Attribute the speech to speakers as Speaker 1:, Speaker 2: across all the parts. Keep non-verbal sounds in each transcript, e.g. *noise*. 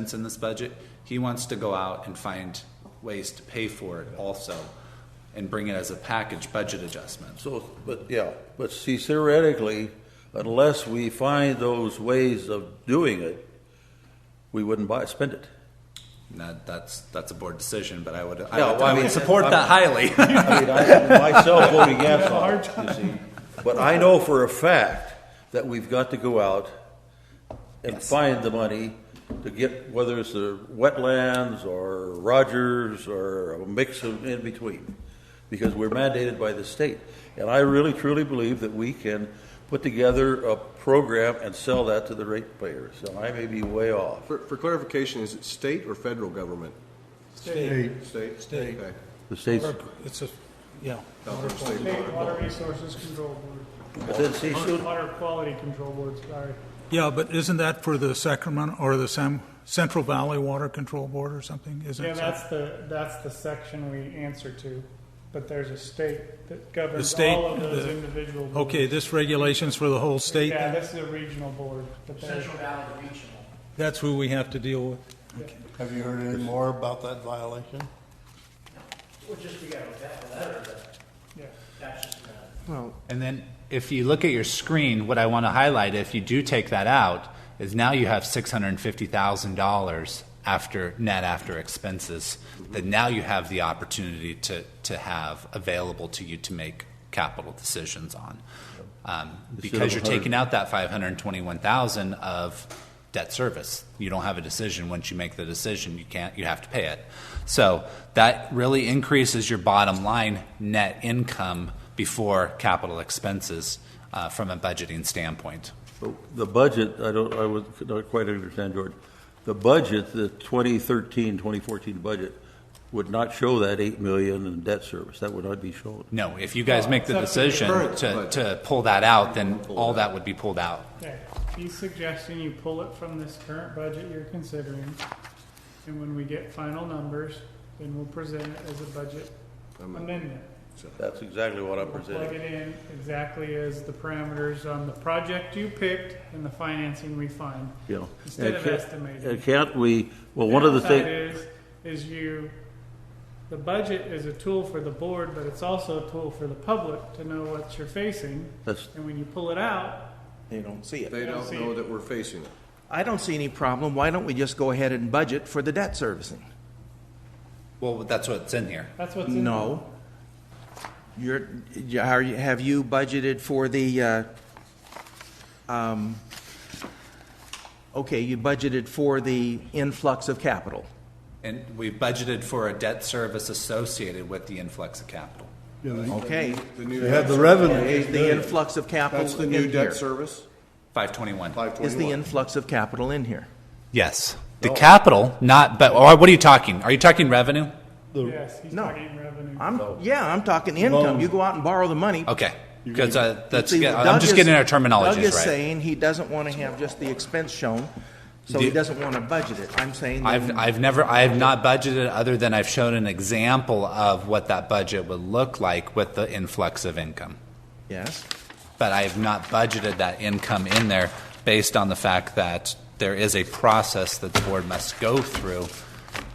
Speaker 1: investments in this budget, he wants to go out and find ways to pay for it also and bring it as a package budget adjustment.
Speaker 2: So, but yeah, but see, theoretically, unless we find those ways of doing it, we wouldn't buy, spend it.
Speaker 1: And that, that's, that's a board decision, but I would,
Speaker 2: Yeah,
Speaker 1: I would,
Speaker 2: well, I
Speaker 1: I would
Speaker 2: mean,
Speaker 1: support
Speaker 2: I'm-
Speaker 1: that highly.
Speaker 2: I mean, I myself voted yes on it, you see. But I know for a fact that we've got to go out and find the money to get, whether it's the wetlands or Rogers or a mix of in between, because we're mandated by the state. And I really truly believe that we can put together a program and sell that to the ratepayers. And I may be way off.
Speaker 3: For, for clarification, is it state or federal government?
Speaker 4: State.
Speaker 3: State?
Speaker 4: State.
Speaker 3: Okay.
Speaker 2: The state's,
Speaker 4: It's a, yeah.
Speaker 3: Not from state
Speaker 5: State
Speaker 3: water.
Speaker 5: Water Resources Control Board,
Speaker 2: but then see, shoot,
Speaker 5: Water Quality Control Board, sorry.
Speaker 4: Yeah, but isn't that for the Sacramento or the Sam, Central Valley Water Control Board or something? Isn't
Speaker 5: Yeah,
Speaker 4: it?
Speaker 5: that's the, that's the section we answer to, but there's a state that governs
Speaker 4: state,
Speaker 5: all of those
Speaker 4: the-
Speaker 5: individual. boards.
Speaker 4: Okay, this regulation's for the whole state.
Speaker 5: Yeah, this is a regional board, but there's,
Speaker 6: Central Valley Regional.
Speaker 4: That's who we have to deal with.
Speaker 7: Have you heard any more about that violation?
Speaker 6: Well, just we got a letter, but
Speaker 5: yeah.
Speaker 1: *laughs*
Speaker 6: that's just another.
Speaker 8: And then if you look at your screen, what I want to highlight, if you do take that out, is now you have $650,000 after net after expenses that now you have the opportunity to, to have available to you to make capital decisions on. Um, because you're taking out that 521,000 of debt service. You don't have a decision. Once you make the decision, you can't, you have to pay it. So that really increases your bottom line net income before capital expenses uh, from a budgeting standpoint.
Speaker 2: The budget, I don't, I would, could not quite understand, George. The budget, the 2013, 2014 budget, would not show that 8 million in debt service. That would not be shown.
Speaker 8: No, if you guys make the decision
Speaker 3: current
Speaker 8: to,
Speaker 3: budget.
Speaker 8: to pull that out, then all that would be pulled out.
Speaker 5: Okay, he's suggesting you pull it from this current budget you're considering, and when we get final numbers, then we'll present it as a budget amendment.
Speaker 2: That's exactly what I'm
Speaker 5: Plug
Speaker 2: presenting.
Speaker 5: it in exactly as the parameters on the project you picked and the financing we find.
Speaker 2: you know.
Speaker 5: Instead
Speaker 2: And
Speaker 5: of
Speaker 2: can't-
Speaker 5: estimating.
Speaker 2: And can't we, well, one of the
Speaker 5: Downside
Speaker 2: things,
Speaker 5: Is, is you, the budget is a tool for the board, but it's also a tool for the public to know what you're facing.
Speaker 2: that's,
Speaker 5: And when you pull it out,
Speaker 6: They don't see it.
Speaker 3: They don't know that we're facing it.
Speaker 6: I don't see any problem. Why don't we just go ahead and budget for the debt servicing?
Speaker 8: Well, that's what's in here.
Speaker 5: that's what's in.
Speaker 6: No. You're, you- are you- have you budgeted for the, uh, um, okay, you budgeted for the influx of capital.
Speaker 1: And we've budgeted for a debt service associated with the influx of capital.
Speaker 6: Okay.
Speaker 3: The new
Speaker 7: They had the
Speaker 3: debt-
Speaker 6: Is
Speaker 7: revenue.
Speaker 6: the influx of capital
Speaker 3: That's the
Speaker 6: in
Speaker 3: new
Speaker 6: here?
Speaker 3: debt service,
Speaker 1: 521.
Speaker 3: five
Speaker 6: Is the
Speaker 3: twenty-one.
Speaker 6: influx of capital in here?
Speaker 8: Yes. The capital, not, but, or what are you talking? Are you talking revenue?
Speaker 5: Yes, he's
Speaker 6: No.
Speaker 5: talking revenue.
Speaker 6: I'm, yeah, I'm talking income. You go out and borrow the money.
Speaker 8: Okay. Because uh, that's,
Speaker 6: See,
Speaker 8: I'm
Speaker 6: Doug
Speaker 8: just
Speaker 6: is-
Speaker 8: getting our terminologies
Speaker 6: Doug is
Speaker 8: right.
Speaker 6: saying he doesn't want to have just the expense shown, so he
Speaker 8: Do-
Speaker 6: doesn't want to budget it. I'm saying
Speaker 8: I've,
Speaker 6: that
Speaker 8: I've never, I have not budgeted other than I've shown an example of what that budget would look like with the influx of income.
Speaker 6: yes,
Speaker 8: But I have not budgeted that income in there based on the fact that there is a process that the board must go through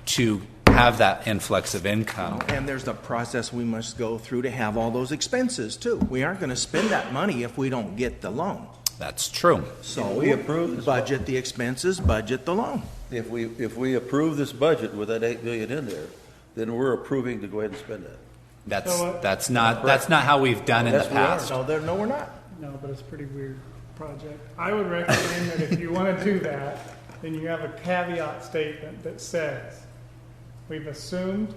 Speaker 8: to have that influx of income.
Speaker 6: and there's the process we must go through to have all those expenses too. We aren't going to spend that money if we don't get the loan.
Speaker 8: That's true.
Speaker 6: So
Speaker 2: we approve this-
Speaker 6: Budget the expenses, budget the loan.
Speaker 2: if we, if we approve this budget with that 8 million in there, then we're approving to go ahead and spend that.
Speaker 8: That's,
Speaker 5: So, uh,
Speaker 8: that's not, that's not how we've done in the
Speaker 2: Yes, we are.
Speaker 8: past.
Speaker 6: No, there, no, we're not.
Speaker 5: No, but it's a pretty weird project. I would recommend that if you want to do that, then you have a caveat statement that says, we've assumed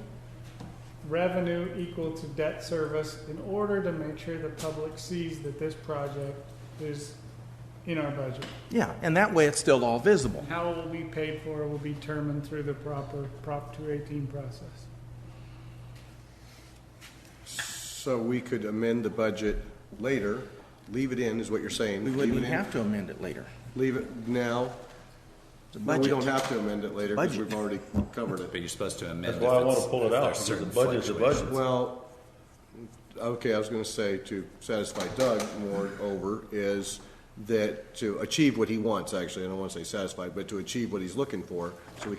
Speaker 5: revenue equal to debt service in order to make sure the public sees that this project is in our budget.
Speaker 6: Yeah, and that way it's still all visible.
Speaker 5: How it will be paid for will be determined through the proper Prop 218 process.
Speaker 3: So we could amend the budget later, leave it in, is what you're saying.
Speaker 6: We
Speaker 3: Leave
Speaker 6: wouldn't
Speaker 3: it in-
Speaker 6: have to amend it later.
Speaker 3: Leave it now.
Speaker 6: It's a
Speaker 3: Well, we
Speaker 6: budget.
Speaker 3: don't have to amend it later because
Speaker 6: Budget.
Speaker 3: we've already covered it.
Speaker 1: But you're supposed to amend.
Speaker 2: That's why I
Speaker 1: if
Speaker 2: want to
Speaker 1: it's-
Speaker 2: pull
Speaker 1: if
Speaker 2: it out,
Speaker 1: there's
Speaker 2: because the
Speaker 1: certain
Speaker 2: budget's a
Speaker 1: fluctuations.
Speaker 2: budget.
Speaker 3: Well, okay, I was gonna say to satisfy Doug more over is that, to achieve what he wants, actually, I don't want to say satisfied, but to achieve what he's looking for, so we